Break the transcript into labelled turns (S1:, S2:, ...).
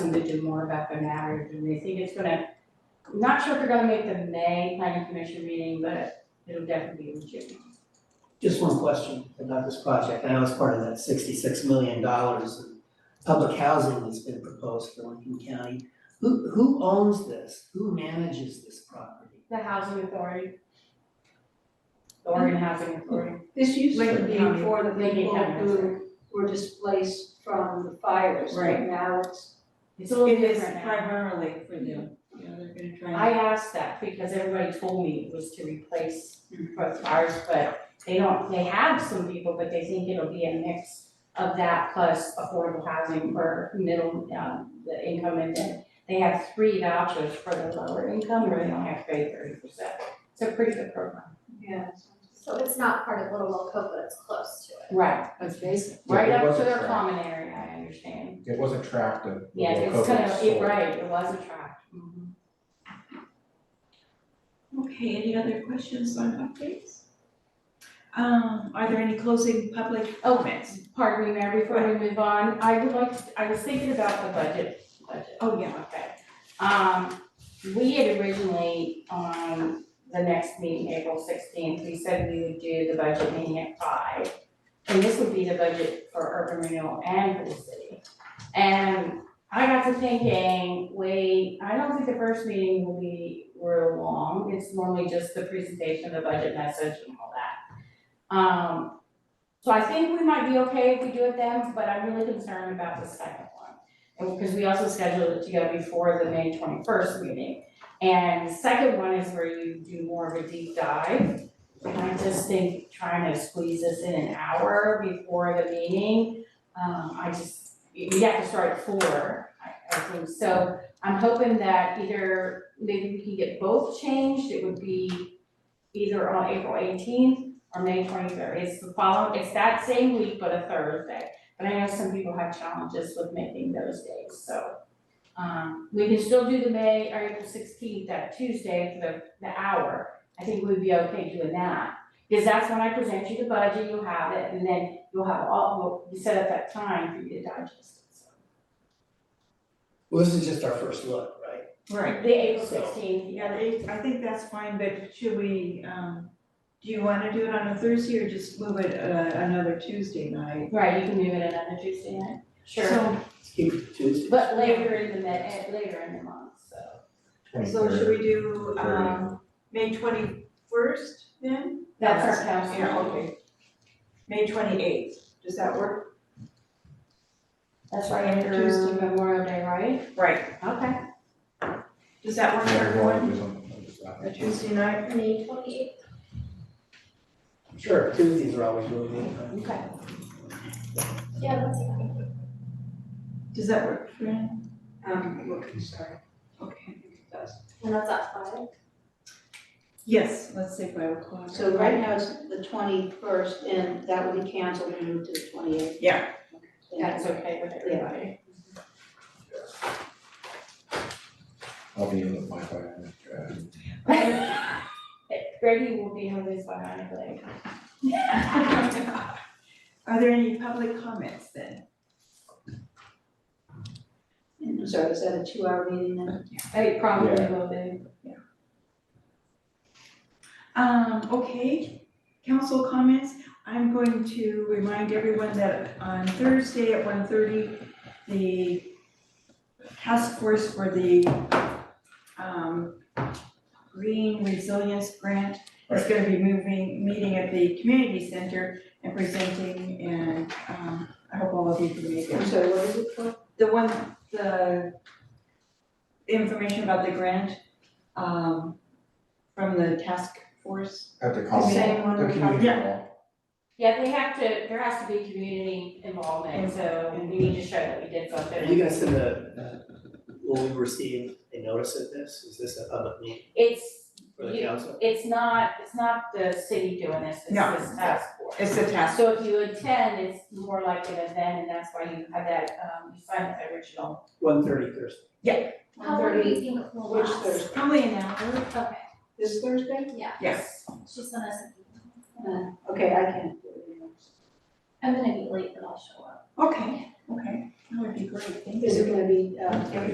S1: them to do more about their matters, and they think it's gonna, I'm not sure if they're gonna make the May planning commission meeting, but it'll definitely be in June.
S2: Just one question about this project, I know it's part of that sixty-six million dollars in public housing that's been proposed for Lincoln County. Who, who owns this? Who manages this property?
S1: The housing authority. The Oregon Housing Authority.
S3: This used to
S1: Lincoln
S3: be
S1: County.
S3: for the
S1: Lincoln
S3: people
S1: County,
S3: who were displaced from the fires, but
S1: Right.
S3: now it's,
S1: It's a little
S4: It is
S1: different now.
S4: primarily for them, you know, they're gonna try and.
S1: I asked that because everybody told me it was to replace both ours, but they don't, they have some people, but they think it'll be a mix of that plus affordable housing for middle, um, the income and then they have three vouchers for the lower income where they don't have to pay thirty percent. It's a pretty good program.
S3: yeah.
S5: So it's not part of Little Wilco, but it's close to it.
S1: Right,
S4: That's basic.
S1: right
S6: Yeah, it
S1: up to
S6: wasn't
S1: their
S6: tracked.
S1: common area, I understand.
S6: It wasn't tracked and.
S1: Yeah, it's gonna, it, right, it was a track. Mhm.
S4: Okay, any other questions on updates? Um, are there any closing public comments?
S1: Pardon me, Mayor, before we move on, I would like, to- I was thinking about the budget, budget.
S4: Oh, yeah,
S1: Okay. Um, we had originally, on the next meeting, April sixteenth, we said we would do the budget meeting at five. And this would be the budget for urban renewal and for the city. And I got to thinking, wait, I don't think the first meeting will be real long, it's normally just the presentation of the budget message and all that. Um, so I think we might be okay if we do it then, but I'm really concerned about the second one because we also scheduled it to go before the May twenty-first meeting. And the second one is where you do more of a deep dive. And I just think trying to squeeze this in an hour before the meeting, um, I just, we have to start at four, I, I think. So I'm hoping that either, maybe we can get both changed, it would be either on April eighteenth or May twenty-third. It's the following, it's that same week, but a Thursday. But I know some people have challenges with making those days, so. Um, we can still do the May, or April sixteenth, that Tuesday for the, the hour. I think we'd be okay doing that. Because that's when I present you the budget, you'll have it, and then you'll have all, we'll set up that time for you to digest it, so.
S2: Well, this is just our first look, right?
S4: right.
S1: The April sixteenth,
S4: Yeah, they, I think that's fine, but should we, um, do you wanna do it on a Thursday or just move it, uh, another Tuesday night?
S1: right, you can move it another Tuesday night. Sure,
S4: So,
S2: Let's keep it Tuesday.
S1: but later in the, ma- later in the month, so.
S4: so should we do, um, May twenty-first then?
S1: That's our council.
S4: Yeah, okay. May twenty-eighth, does that work?
S1: That's right after
S4: Tuesday.
S1: Memorial Day, right?
S4: Right.
S1: Okay.
S4: Does that work for everyone, a
S6: everyone.
S4: Tuesday night?
S5: May twenty-eighth.
S2: Sure, Tuesdays are always really good. huh?
S1: Okay.
S5: Yeah, that's okay.
S4: Does that work for you?
S3: Um, look, sorry.
S4: Okay.
S5: And that's at five.
S4: Yes, let's say five o'clock.
S3: So right now it's the twenty-first, and that will be canceled and moved to the twenty-eighth.
S4: Yeah.
S1: That's okay with everybody.
S6: I'll be in with my phone. uh,
S1: Grady will be on this one, I believe.
S4: Are there any public comments then?
S3: I'm sorry, is that a two-hour meeting then?
S1: I probably
S6: Yeah.
S1: will be.
S4: Um, okay, council comments, I'm going to remind everyone that on Thursday at 1:30, the task force for the, um, green resilience grant is gonna be moving, meeting at the community center and presenting, and, um, I hope all of you can make it.
S3: I'm sorry, what is it for?
S4: The one, the information about the grant, um, from the task force.
S6: At the
S3: The
S6: common,
S3: same
S6: the
S3: one we
S6: community hall.
S1: Yeah, they have to, there has to be community involvement, so we need to show that we did
S2: Are
S1: something.
S2: you guys in the, uh, will we receive a notice of this? Is this a public meeting
S1: It's,
S2: for the
S1: You-
S2: council?
S1: it's not, it's not the city doing this, it's
S4: No.
S1: this task force.
S4: It's the task.
S1: So if you attend, it's more like an event, and that's why you have that, um, you signed the original.
S2: One thirty Thursday.
S5: How long do you think it will
S3: Which
S5: last?
S3: Thursday?
S4: Probably an hour.
S5: Okay,
S3: This Thursday?
S5: yeah,
S4: Yes.
S5: she sent us an email.
S3: Uh, okay, I can't do it.
S7: I'm gonna be late, but I'll show up.
S5: Okay, okay, that would be great, thank you.
S3: Is it gonna be, uh, every